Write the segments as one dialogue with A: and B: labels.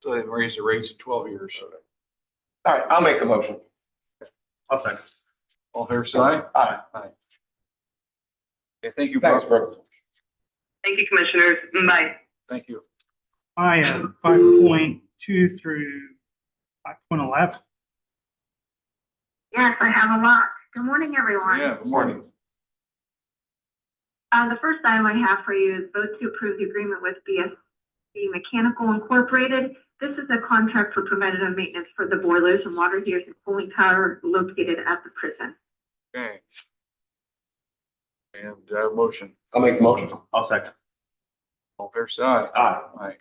A: So they raised the rates to twelve years.
B: All right, I'll make the motion.
C: I'll second.
A: All fair side?
B: Aye.
A: Aye. Okay, thank you.
B: Thanks,
A: Brooke.
B: Brooke.
D: Thank you, Commissioners. Bye.
A: Thank you.
E: I am five point two through five point eleven.
F: Yes, I have a lot. Good morning, everyone.
A: Yeah, good morning.
F: Uh, the first item I have for you is vote to approve the agreement with BSC Mechanical Incorporated. This is a contract for preventative maintenance for the boilers and water heaters and cooling tower located at the prison.
A: Okay. And, uh, motion,
B: I'll make the motion.
C: I'll second.
A: all fair side?
B: Aye.
A: Aye.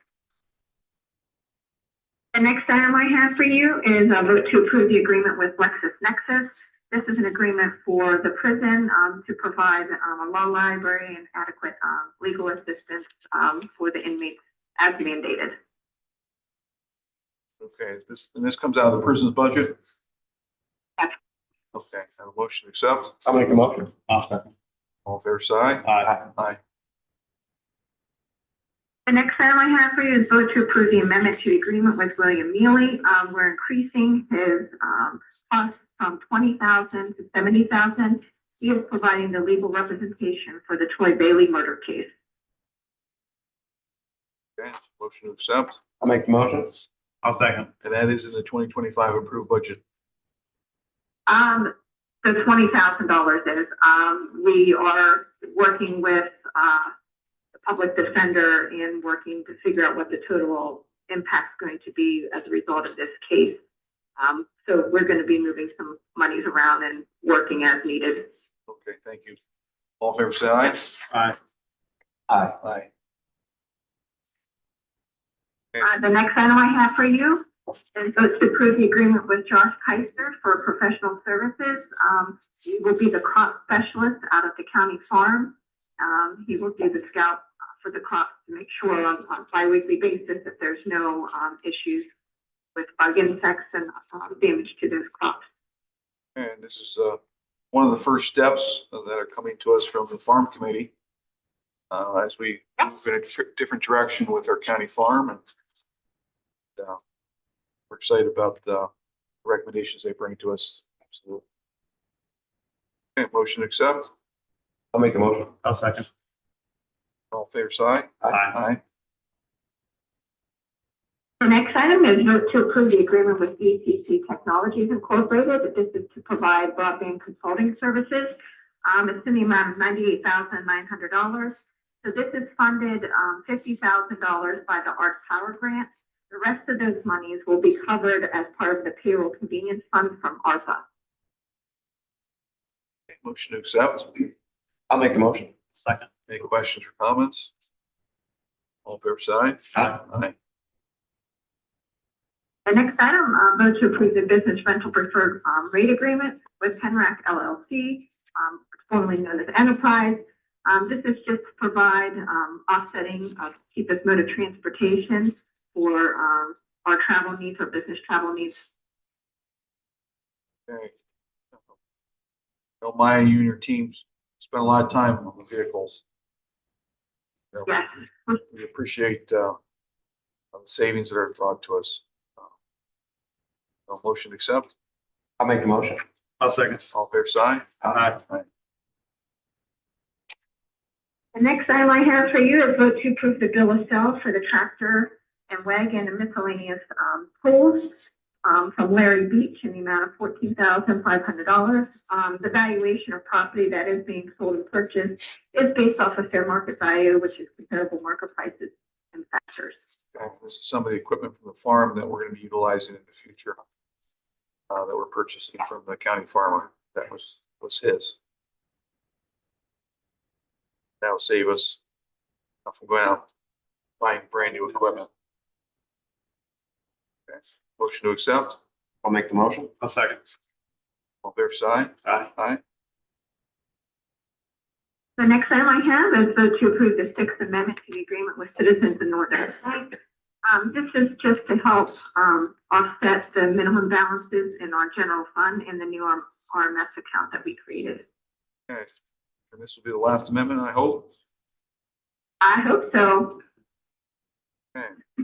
F: The next item I have for you is a vote to approve the agreement with LexisNexis. This is an agreement for the prison, um, to provide, um, a law library and adequate, um, legal assistance, um, for the inmates as mandated.
A: Okay, this, and this comes out of the prison's budget?
F: Yes.
A: Okay, have a motion to accept,
B: I'll make the motion.
C: I'll second.
A: all fair side?
C: Aye.
A: Aye.
F: The next item I have for you is vote to approve the amendment to the agreement with William Neely. Um, we're increasing his, um, cost from twenty thousand to seventy thousand. He is providing the legal representation for the Troy Bailey murder case.
A: Okay, motion to accept,
B: I'll make the motion.
C: I'll second.
A: and that is in the twenty twenty-five approved budget.
F: Um, the twenty thousand dollars is, um, we are working with, uh, the public defender and working to figure out what the total impact's going to be as a result of this case. Um, so we're gonna be moving some monies around and working as needed.
A: Okay, thank you. All fair side?
C: Aye.
B: Aye.
A: Aye.
F: Uh, the next item I have for you is vote to approve the agreement with Josh Keister for professional services. Um, he will be the crop specialist out of the county farm. Um, he will do the scout uh, for the crops to make sure on, on bi-weekly basis that there's no, um, issues with bug insects and, um, damage to those crops.
A: And this is, uh, one of the first steps that are coming to us from the farm committee. Uh, as we
F: Yep.
A: move in a tr- different direction with our county farm and. uh, We're excited about the recommendations they bring to us. Absolutely. Okay, motion to accept,
B: I'll make the motion.
C: I'll second.
A: all fair side?
C: Aye.
A: Aye.
F: The next item is vote to approve the agreement with ETC Technologies Incorporated. This is to provide broadband consulting services. Um, it's in the amount of ninety-eight thousand nine hundred dollars. So this is funded, um, fifty thousand dollars by the Arts Power Grant. The rest of those monies will be covered as part of the payroll convenience fund from ARPA.
A: Okay, Motion to accept,
B: I'll make the motion.
C: Second.
A: any questions or comments? All fair side?
C: Aye.
A: Aye.
F: The next item, uh, vote to approve the business rental preferred, um, rate agreement with Penrac LLC, um, formerly known as Enterprise. Um, this is just to provide, um, offsetting of cheapest mode of transportation for, um, our travel needs, our business travel needs.
A: Okay. Don't mind you and your teams spend a lot of time on the vehicles. You know,
F: Yes.
A: We appreciate, uh, the savings that are brought to us. Uh, motion to accept,
B: I'll make the motion.
C: I'll second.
A: all fair side?
C: Aye.
F: The next item I have for you is vote to approve the bill of sale for the tractor and wagon and miscellaneous, um, tools, um, from Larry Beach in the amount of fourteen thousand five hundred dollars. Um, the valuation of property that is being sold and purchased is based off of fair market value, which is comparable market prices and factors.
A: Okay, This is some of the equipment from the farm that we're gonna be utilizing in the future. Uh, that we're purchasing from the county farmer. That was, was his. That'll save us from going out buying brand new equipment. Okay, Motion to accept,
B: I'll make the motion.
C: I'll second.
A: all fair side?
C: Aye.
A: Aye.
F: The next item I have is vote to approve the Sixth Amendment to the Agreement with Citizens in Northern Ireland. Um, this is just to help, um, offset the minimum balances in our general fund and the new R- RMS account that we created.
A: Okay, and this will be the last amendment, I hope.
F: I hope so.
A: Okay.